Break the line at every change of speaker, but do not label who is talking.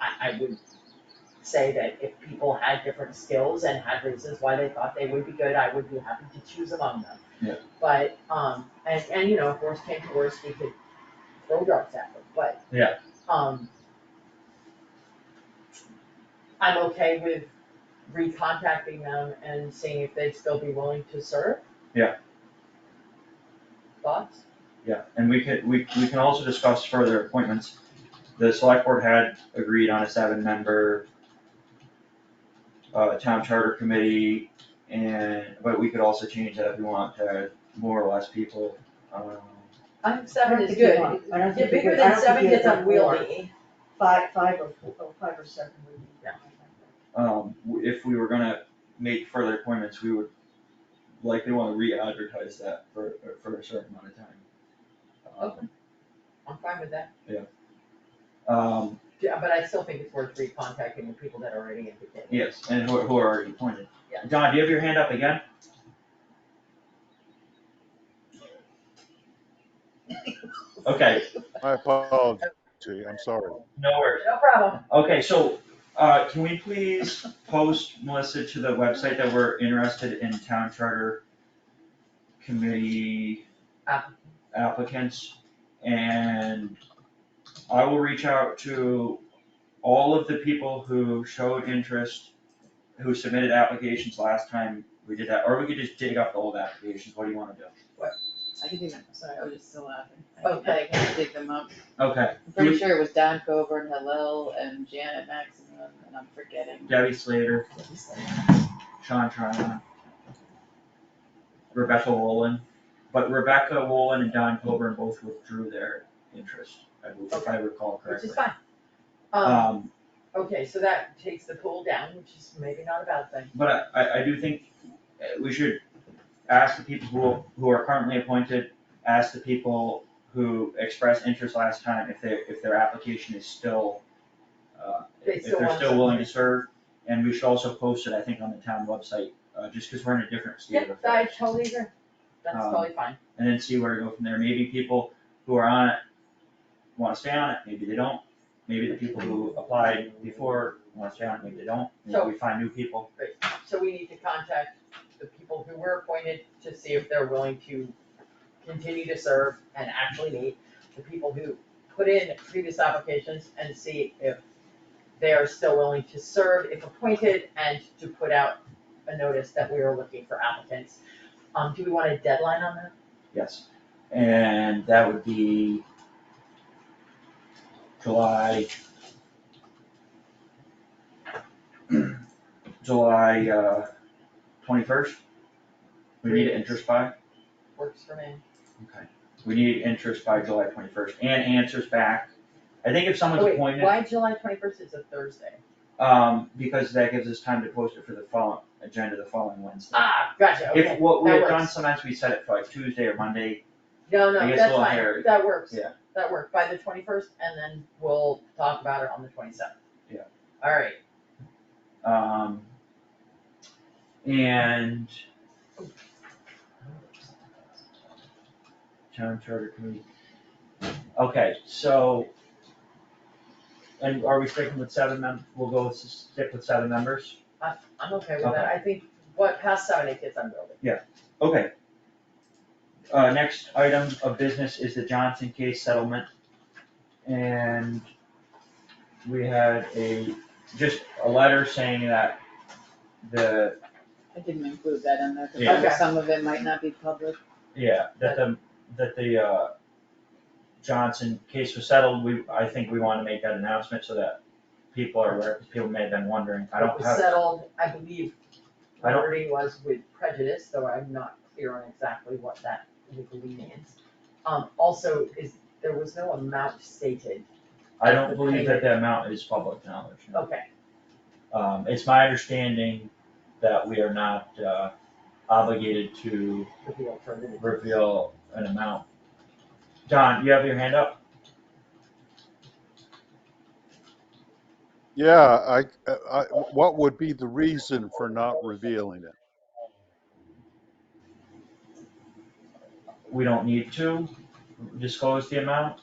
I, I would say that if people had different skills and had reasons why they thought they would be good, I would be happy to choose among them.
Yeah.
But, um, and, and you know, if worse came to worse, we could throw darts at them, but.
Yeah.
Um. I'm okay with recontacting them and seeing if they'd still be willing to serve.
Yeah.
Thoughts?
Yeah, and we can, we, we can also discuss further appointments. The select board had agreed on a seven-member uh, town charter committee, and, but we could also change that if we want to more or less people. Um,
I think
I don't
seven is
think you
good.
want- I don't
Yeah,
think you-
bigger
I
than
don't
seven
think you
gets
have four.
unwieldy.
Five, five or four, oh, five or seven would be.
Yeah.
Um, w- if we were gonna make further appointments, we would likely wanna re-advertise that for, for a certain amount of time. Um,
Okay. I'm fine with that,
Um,
Yeah, but I still think it's worth recontacting the people that already indicated.
yes, and who, who are already appointed.
Yeah.
Don, do you have your hand up again? Okay,
My apology, I'm sorry.
no worries.
No problem.
Okay, so, uh, can we please post, Melissa, to the website that we're interested in town charter committee
App-
applicants? And I will reach out to all of the people who showed interest, who submitted applications last time we did that, or we could just dig up the old applications, what do you wanna do?
I can do that, sorry, I was just still laughing. I-
Okay.
I can dig them up.
Okay,
I'm pretty sure it was Don Coburn, Hillel, and Janet Maximum, and I'm forgetting.
Debbie Slater, Sean Tryon. Rebecca Wolin, but Rebecca Wolin and Don Coburn both withdrew their interest, I believe, if I recall
Which
correctly.
is fine. Um,
Um,
okay, so that takes the pool down, which is maybe not a bad thing.
but I, I, I do think uh, we should ask the people who, who are currently appointed, ask the people who expressed interest last time if they, if their application is still, uh,
They
if
still
they're
want
still
to-
willing to serve, and we should also post it, I think, on the town website, uh, just because we're in a different state of
Yeah,
affairs.
I totally agree. That's
Um,
totally fine.
and then see where to go from there. Maybe people who are on it wanna stay on it, maybe they don't. Maybe the people who applied before wanna stay on it, maybe they don't. Maybe we find new people.
So we need to contact the people who were appointed to see if they're willing to continue to serve and actually meet. The people who put in previous applications and see if they are still willing to serve if appointed and to put out a notice that we are looking for applicants. Um, do we want a deadline on that?
Yes. And that would be July July uh twenty-first. We need it interest by.
Works for me.
Okay. We need interest by July twenty-first and answers back. I think if someone's
Oh, wait,
appointed.
why July twenty-first is a Thursday?
Um, because that gives us time to post it for the following, agenda the following Wednesday.
Ah, gotcha, okay.
If, what we
that
had done,
works.
sometimes we set it for like Tuesday or Monday,
No,
I
no,
guess
that's
we'll
fine,
hire-
that works.
yeah.
That worked, by the twenty-first, and then we'll talk about it on the twenty-seventh.
Yeah.
Alright,
um. And. Town Charter Committee. Okay, so. And are we sticking with seven mem, we'll go with, s- stick with seven members?
I'm okay with that, I think, what, past seven, it gets unwieldy.
Okay. Uh, next item of business is the Johnson case settlement. And we had a, just a letter saying that the,
I didn't include that in there,
Yeah.
Okay.
because some of it might not be public.
yeah, that the, that the, uh, Johnson case was settled, we, I think we wanna make that announcement so that people are aware, 'cause people may have been wondering, I
It
don't
was
have,
settled, I believe,
I don't-
Liberty was with prejudice, though I'm not clear on exactly what that legally means. Um, also, is, there was no amount stated,
I don't believe that the amount is public knowledge. no.
okay,
Um, it's my understanding that we are not, uh, obligated to
reveal for the.
reveal an amount. Don, you have your hand up?
Yeah, I, I, what would be the reason for not revealing it?
We don't need to disclose the amount?